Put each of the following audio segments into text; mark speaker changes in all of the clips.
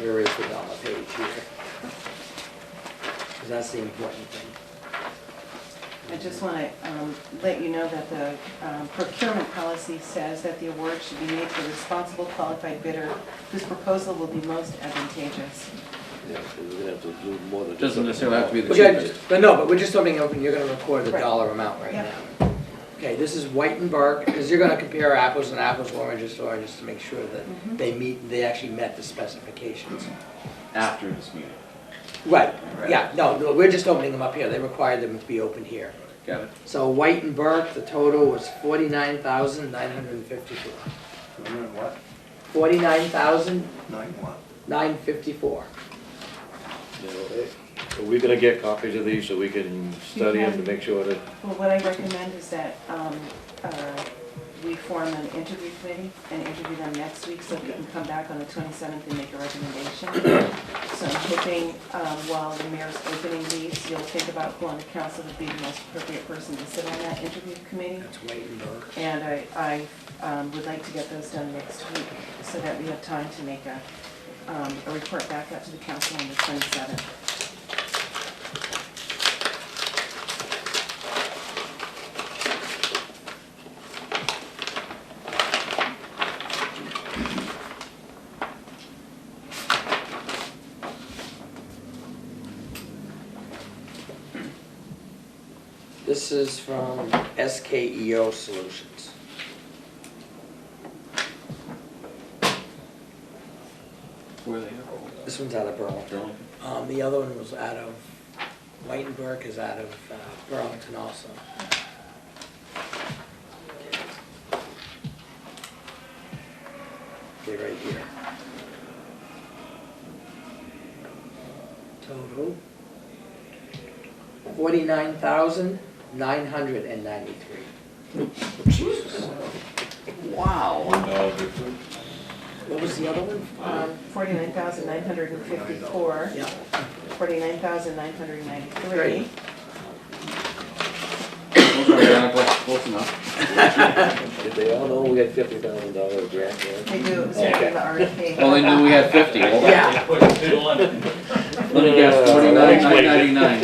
Speaker 1: where is the dollar page here? Because that's the important thing.
Speaker 2: I just want to let you know that the um, procurement policy says that the award should be made to a responsible qualified bidder whose proposal will be most advantageous.
Speaker 3: Yeah, so we're gonna have to do more than. just-
Speaker 4: Doesn't necessarily have to be the
Speaker 1: Which I-
Speaker 4: cheapest.
Speaker 1: But no, but we're just opening open, you're gonna record the
Speaker 2: Right.
Speaker 1: dollar amount right
Speaker 2: Yeah.
Speaker 1: now. Okay, this is Whitenburg, because you're gonna compare apples and apples, oranges to oranges, to make sure that they meet, they actually met the specifications.
Speaker 5: after this meeting.
Speaker 1: Right,
Speaker 4: Right.
Speaker 1: yeah, no, no, we're just opening them up here, they required them to be open here.
Speaker 4: Got it.
Speaker 1: So Whitenburg, the total was forty-nine thousand nine hundred and fifty-four.
Speaker 6: Nine what?
Speaker 1: Forty-nine thousand
Speaker 6: Nine what?
Speaker 1: nine fifty-four.
Speaker 3: You know, eh, Are we gonna get copies of these so we can study them to make sure that,
Speaker 2: Well, what I recommend is that um, uh, we form an interview committee and interview them next week so we can come back on the 27th and make a recommendation. So I'm hoping um, while the mayor's opening these, you'll think about who on the council would be the most appropriate person to sit on that interview committee.
Speaker 1: That's Whitenburg.
Speaker 2: And I, I um, would like to get those done next week so that we have time to make a, um, a report back out to the council on the 27th.
Speaker 1: This is from SKEO Solutions.
Speaker 4: Where they
Speaker 1: This one's out of Burlington.
Speaker 4: Burlington.
Speaker 1: Um, the other one was out of, Whitenburg is out of uh, Burlington also. Okay, right here. Total. Forty-nine thousand, nine hundred and ninety-three.
Speaker 4: Wow.
Speaker 5: No, but
Speaker 1: What was the other one?
Speaker 2: Um, 49,954,
Speaker 1: Yeah.
Speaker 2: 49,993.
Speaker 1: Great.
Speaker 4: Those are exactly close enough.
Speaker 3: did they all know we had fifty thousand dollar grant there?
Speaker 2: They do, it was part of the RFP.
Speaker 4: Well, they knew we had fifty. Let
Speaker 1: Yeah.
Speaker 5: Put a fiddle on it.
Speaker 4: me guess, forty-nine, nine ninety-nine.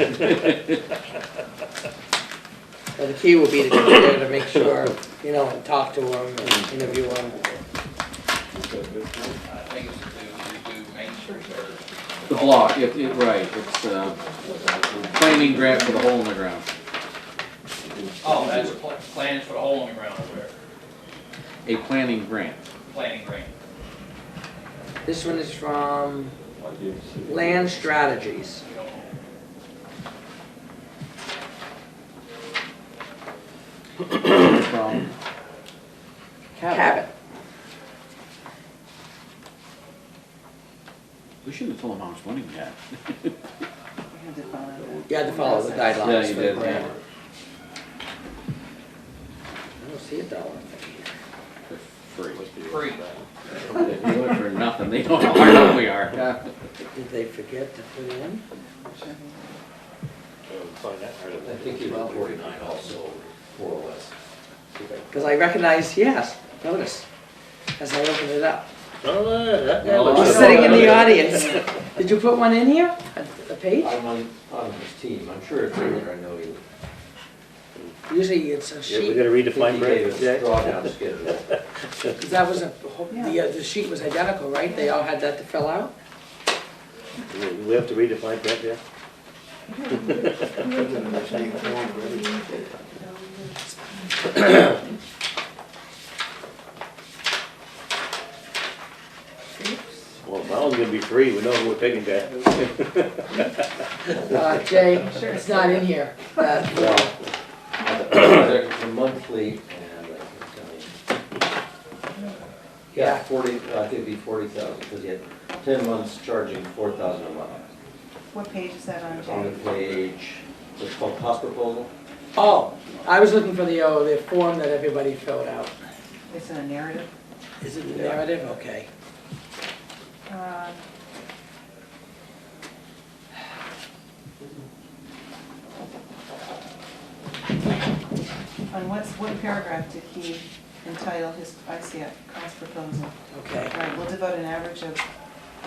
Speaker 1: Well, the key will be to get there to make sure, you know, and talk to them and interview them.
Speaker 7: I think it's to redo Main Street or
Speaker 4: The block, it, it, right, it's, uh, planning grant for the hole in the ground.
Speaker 7: Oh, that's pl- plans for the hole in the ground over there,
Speaker 4: A planning grant.
Speaker 7: planning grant.
Speaker 1: This one is from Land Strategies.
Speaker 7: We don't know.
Speaker 4: from
Speaker 1: Cabot.
Speaker 4: We shouldn't have told him how much money we had.
Speaker 2: We had to follow that.
Speaker 1: You had to follow the guidelines.
Speaker 4: Yeah, you
Speaker 1: for
Speaker 4: did,
Speaker 1: the grant.
Speaker 4: yeah.
Speaker 1: I don't see a dollar thing here.
Speaker 4: For free.
Speaker 7: Free,
Speaker 4: They do it for nothing, they don't know how hard we are.
Speaker 1: Did they forget to put in?
Speaker 3: Find that part of
Speaker 8: I
Speaker 3: it.
Speaker 8: think you were forty-nine also, more or less.
Speaker 1: Because I recognized, yes, notice, as I opened it up.
Speaker 3: No, no, no, that-
Speaker 4: No,
Speaker 3: that
Speaker 4: I
Speaker 1: She's
Speaker 3: looks-
Speaker 4: know.
Speaker 1: sitting in the audience. Did you put one in here? A- A page?
Speaker 8: I'm on, on his team, I'm sure it's in there, I know you.
Speaker 1: Usually it's a
Speaker 3: Yeah, we
Speaker 1: sheet,
Speaker 3: gotta read the fine
Speaker 8: He
Speaker 3: print,
Speaker 8: gave us
Speaker 3: Jack.
Speaker 8: drawdown schedule.
Speaker 1: because that was a, whole- the, uh, the sheet was identical, right? They all had that to fill out?
Speaker 3: We we have to read the fine print, yeah? Well, that one's gonna be free, we know who we're picking, Jack.
Speaker 1: Uh, Jay, it's not in here. Uh,
Speaker 8: Well, the- The monthly, and I can tell you. Yeah, forty, I think it'd be forty thousand, because he had ten months charging four thousand a month.
Speaker 2: What page is that on,
Speaker 8: On the
Speaker 2: Jay?
Speaker 8: page, it's called cost proposal.
Speaker 1: Oh, I was looking for the, oh, the form that everybody filled out.
Speaker 2: It's in a narrative.
Speaker 1: Is it the narrative? Okay.
Speaker 2: Um, On what's, what paragraph did he entitle his, I see it, cost proposal?
Speaker 1: Okay.
Speaker 2: All right, we'll devote an average of